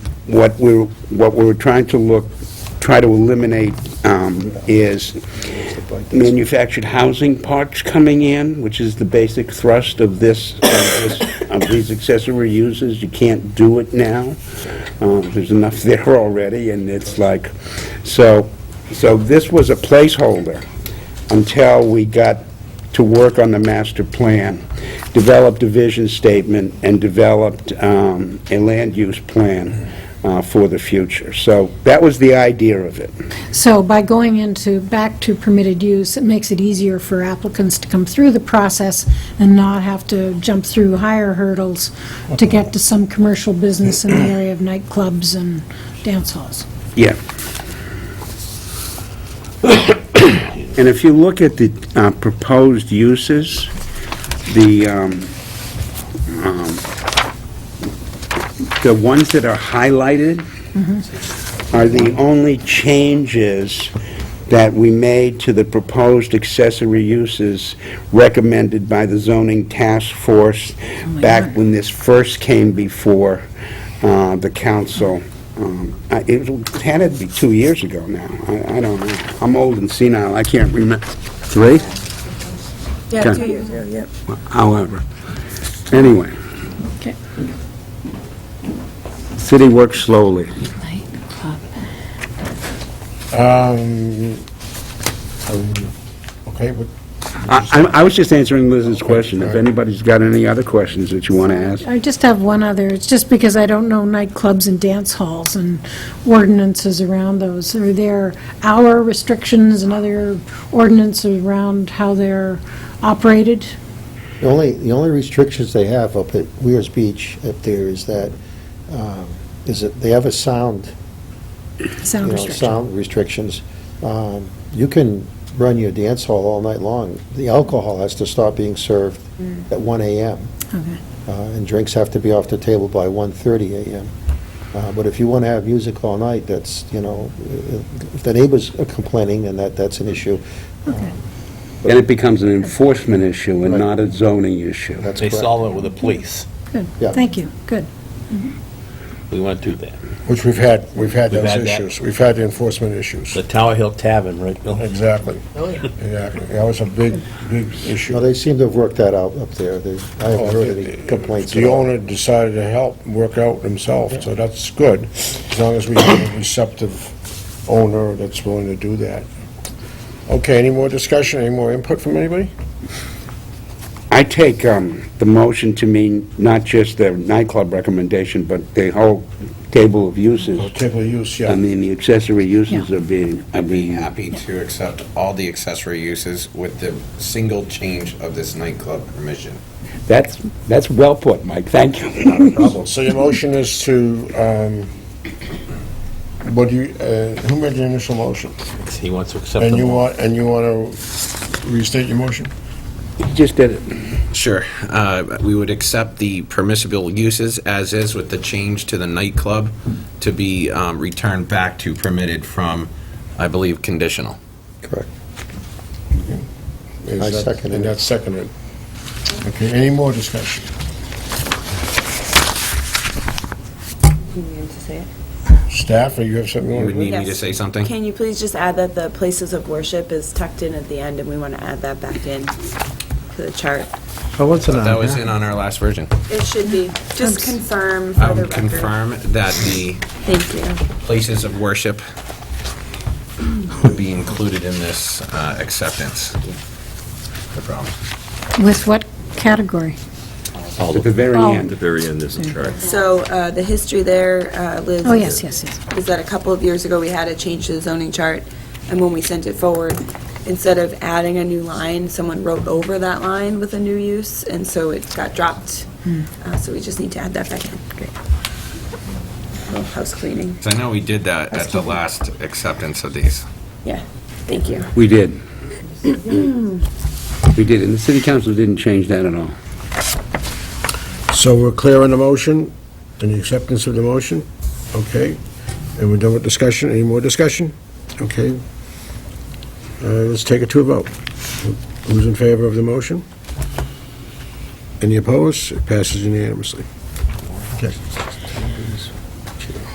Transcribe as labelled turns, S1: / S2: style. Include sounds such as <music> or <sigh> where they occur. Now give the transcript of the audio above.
S1: what we're, what we're trying to look, try to eliminate um, is manufactured housing parks coming in, which is the basic thrust of this, of this- of these accessory uses. You can't do it now. Um, There's enough there already, and it's like, so, so this was a placeholder until we got to work on the master plan, developed a vision statement, and developed um, a land use plan uh, for the future. So that was the idea of it.
S2: So by going into, back to permitted use, it makes it easier for applicants to come through the process and not have to jump through higher hurdles to get to some commercial business in the area of nightclubs and dance halls.
S1: Yeah. <coughs> And if you look at the uh, proposed uses, the, um, um, the ones that are highlighted are the only changes that we made to the proposed accessory uses recommended by the zoning task force back when this first came before uh, the council. Um, I- It was- had to be two years ago now. I I don't know. I'm old and senile. I can't remember. Three?
S3: Yeah,
S1: Okay.
S3: two years ago, yeah.
S1: However, anyway.
S2: Okay.
S1: City works slowly.
S4: Um, um, Okay, but
S1: I, I- I was just answering Liz's question. If anybody's got any other questions that you want to ask,
S2: I just have one other, it's just because I don't know nightclubs and dance halls and ordinances around those. Are there hour restrictions and other ordinances around how they're operated?
S5: The only, the only restrictions they have up at Weir's Beach up there is that, um, is that they have a sound, you
S2: Sound
S5: know,
S2: restrictions?
S5: sound restrictions. Um, You can run your dance hall all night long. The alcohol has to stop being served at 1 AM,
S2: Okay.
S5: uh, and drinks have to be off the table by 1:30 AM. Uh, But if you want to have music all night, that's, you know, if the neighbors are complaining, then that, that's an issue.
S1: then it becomes an enforcement issue and not a zoning issue.
S5: That's
S6: They
S5: correct.
S6: solve it with the police.
S2: Good,
S5: Yeah.
S2: thank you, good.
S6: We want to do that.
S4: which we've had, we've had
S6: We've
S4: those
S6: had that.
S4: issues. We've had the enforcement issues.
S6: The Tower Hill Tavern, right, Bill?
S4: Exactly. Exactly. That was a big, big issue.
S5: No, they seem to have worked that out up there. They, I
S4: Oh,
S5: haven't heard
S4: the-
S5: any complaints at
S4: The
S5: all.
S4: owner decided to help, work out himself, so that's good, as long as we have a receptive owner that's willing to do that. Okay, any more discussion, any more input from anybody?
S1: I take um, the motion to mean not just the nightclub recommendation, but the whole table of
S4: Oh,
S1: uses.
S4: Table of use,
S1: I
S4: yeah.
S1: mean, the accessory uses
S2: Yeah.
S1: are being, are
S7: I'd be
S1: being,
S7: happy to accept all the accessory uses with the single change of this nightclub permission.
S1: that's, that's well put, Mike, thank you.
S4: So your motion is to, um, what do you, uh, who made the initial motion?
S6: He wants to accept
S4: And you
S6: them all.
S4: want, and you want to restate your motion?
S1: Just did it.
S7: Sure. Uh, We would accept the permissible uses as is with the change to the nightclub to be um, returned back to permitted from, I believe, conditional.
S5: Correct.
S4: Is
S5: I
S4: that-
S5: second
S4: And
S5: it.
S4: that's seconded. Okay, any more discussion? Staff, or you have something you
S7: You
S4: want to
S7: would
S4: do?
S7: need me to say something?
S3: Can you please just add that the places of worship is tucked in at the end, and we want to add that back in to the chart?
S8: But what's it on?
S7: That was in on our last version.
S3: It should be, just confirm for the
S7: Um,
S3: record.
S7: Confirm that the
S3: Thank you.
S7: places of worship would be included in this uh, acceptance. No problem.
S2: With what category?
S1: At the very
S2: Oh.
S1: end.
S9: very end, there's a chart.
S3: So uh, the history there, uh, Liz.
S2: Oh,
S3: is-
S2: yes, yes, yes.
S3: Is that a couple of years ago, we had a change to the zoning chart, and when we sent it forward, instead of adding a new line, someone wrote over that line with a new use, and so it got dropped. Uh, So we just need to add that back in. Great. House cleaning,
S7: 'Cause I know we did that at the last acceptance of these.
S3: yeah, thank you.
S1: We did. We did, and the city council didn't change that at all.
S4: So we're clear on the motion, and the acceptance of the motion? Okay. And we're done with discussion, any more discussion? Okay. Uh, Let's take it to a vote. Who's in favor of the motion? Any opposed? It passes unanimously. Okay.